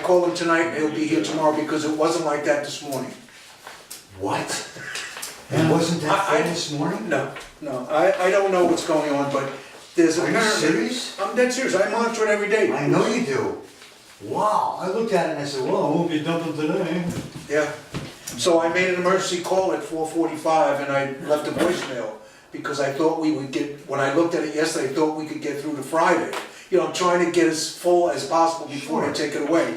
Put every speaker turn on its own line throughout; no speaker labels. called him tonight, he'll be here tomorrow, because it wasn't like that this morning.
What? It wasn't that
I- I-
full this morning?
No, no, I, I don't know what's going on, but there's
Are you
apparently.
serious?
I'm dead serious, I monitor it every day.
I know you do. Wow, I looked at it and I said, well, it won't be dumping today.
Yeah, so I made an emergency call at four forty-five and I left a voicemail because I thought we would get, when I looked at it yesterday, I thought we could get through to Friday. You know, I'm trying to get as full as possible before I
Sure.
take it away.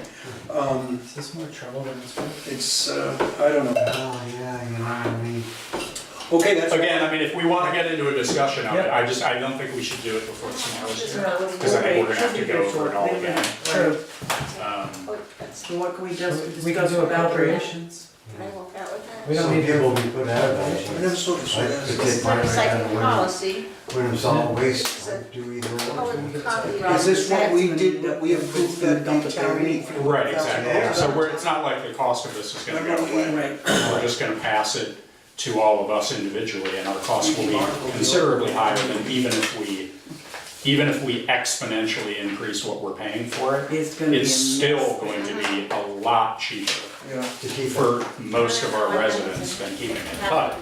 Um,
Is this more trouble than it's worth?
it's, uh, I don't know.
Oh, yeah, you know what I mean?
Okay, that's.
Again, I mean, if we wanna get into a discussion of it,
Yeah.
I just, I don't think we should do it before tomorrow's
Just
here.
not with
Cause I think we're gonna have to
Wait,
go over it all
wait a
again.
minute.
True.
Oh,
Um,
So what can we just
We can
discuss
do
about that?
appropriations.
I won't out with
We
that.
don't
Some
need to-
people will be put out of
I never
that.
saw this.
I
That's-
could
It's
take
not
mine
a
right out
recycling
of
policy.
when, when it's all waste, I do either
Oh,
one.
it's copyright.
Is this what we
That's-
did, that we approved that dump town meeting? for
Right,
Yeah.
exactly, so we're, it's not like the cost of this is gonna go
Remember we-
away. We're just gonna pass it to all of us individually, and our costs will be considerably higher than even if we, even if we exponentially increase what we're paying for it.
It's gonna be
It's
a mess.
still going to be a lot cheaper
Yeah.
To keep it.
for most of our residents than keeping it, but,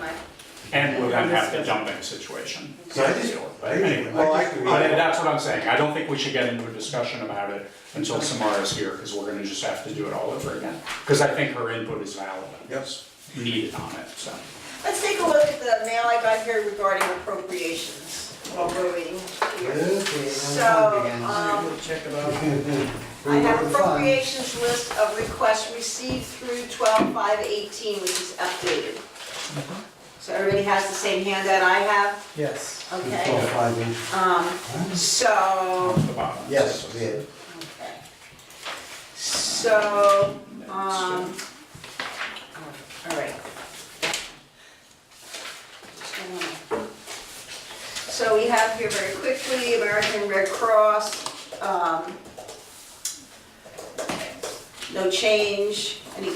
and we're gonna have the dumping situation.
So I just, I
Anyway.
just.
Well, I-
But that's what I'm saying, I don't think we should get into a discussion about it until Samara's here, because we're gonna just have to do it all over again. Because I think her input is valid, and
Yes.
needed on it, so.
Let's take a look at the mail I got here regarding appropriations while we're waiting here. So, um,
Check it out.
I have appropriations list of requests received through 12/5/18, which is updated. So everybody has the same handout I have,
Yes.
okay? Um,
off
so,
the bottom.
Yes, yeah.
okay. So, Um, all right. So we have here very quickly, American Red Cross, um, no change, any,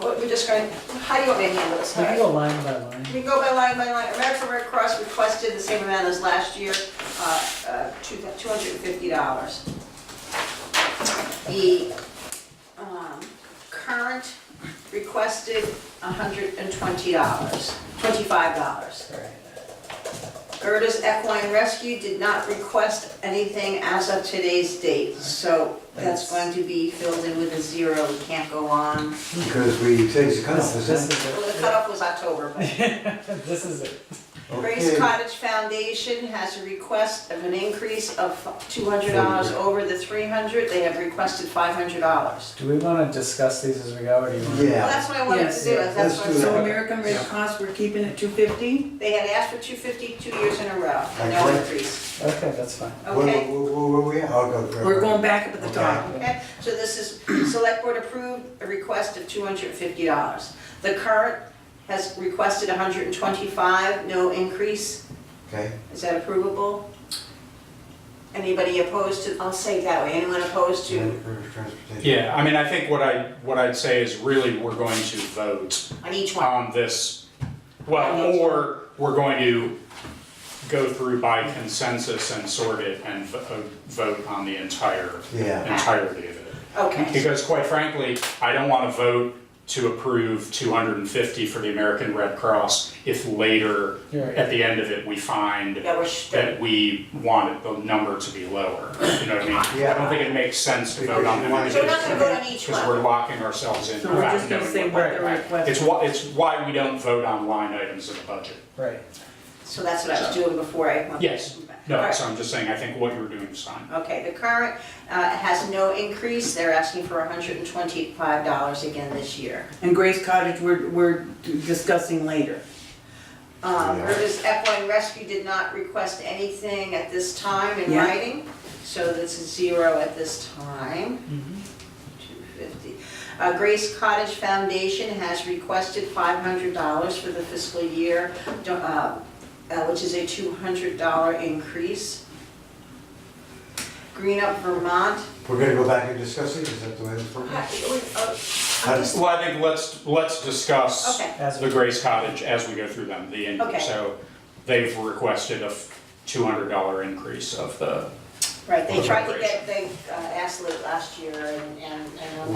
what, we're just going, how do you want me to handle this?
We can go line by line.
We can go by line by line. American Red Cross requested the same amount as last year, uh, uh, two- $250. The um, current requested $120, $25. Gerta's Equine Rescue did not request anything as of today's date, so that's going to be filled in with a zero. We can't go on.
Because we changed the cutoff, is
This, this
that?
is
Well, the
it.
cutoff was October, but...
This is it.
Grace
Okay.
Cottage Foundation has a request of an increase of two hundred dollars over the three hundred, they have requested five hundred dollars.
Do we wanna discuss these as we go, or do you wanna?
Well,
Yeah.
that's what I wanted to
Yes,
do, is that's
let's
what,
do
So
so
American Red Cross, we're keeping it two fifty?
they had asked for two fifty two years in a row, and
Okay.
no increase,
Okay, that's fine.
Where, where,
okay?
where where we at? I'll go for it.
We're going back up at the
Okay.
top.
Okay, so this is, select board approved a request of two hundred and fifty dollars. The current has requested $125, no increase,
Okay,
is that approvable? Anybody opposed to, I'll say it that way, anyone opposed to
Land for transportation.
Yeah, I mean, I think what I, what I'd say is really, we're going to vote
on each one.
on this, well, or we're going to go through by consensus and sort it and vo- vote on the entire,
Yeah.
entirety of it.
Okay,
Because quite frankly, I don't want to vote to approve 250 for the American Red Cross if later,
You're right.
at the end of it, we find
that was,
that we wanted the number to be lower. You know what I mean? I don't think it makes sense to vote on them.
Because you
so we're not gonna vote on each
Because we're
one.
locking ourselves in.
So we're
without
just gonna
knowing
say
what-
what the
right.
request-
It's why, it's why we don't vote on line items in the budget.
Right.
So that's what I was doing before I. went-
Yes.
All
No,
right.
so I'm just saying, I think what you're doing is fine.
Okay, the current uh, has no increase, they're asking for $125 again this year.
And Grace Cottage, we're, we're discussing later.
Um,
Yeah.
Rivers Equine Rescue did not request anything at this time in
Yeah.
writing, so this is zero at this time. 250. Uh, Grace Cottage Foundation has requested $500 for the fiscal year, do- uh, uh, which is a $200 increase. Green Up Vermont.
We're gonna go back and discuss it, is that the way it's
uh,
working?
we- uh,
How does-
Well, I think let's, let's discuss
Okay,
As
the
we,
Grace Cottage as we go through them, the, in-
Okay.
so they've requested a two hundred dollar increase of the
right, they tried to get, they uh, asked late last year and, and. and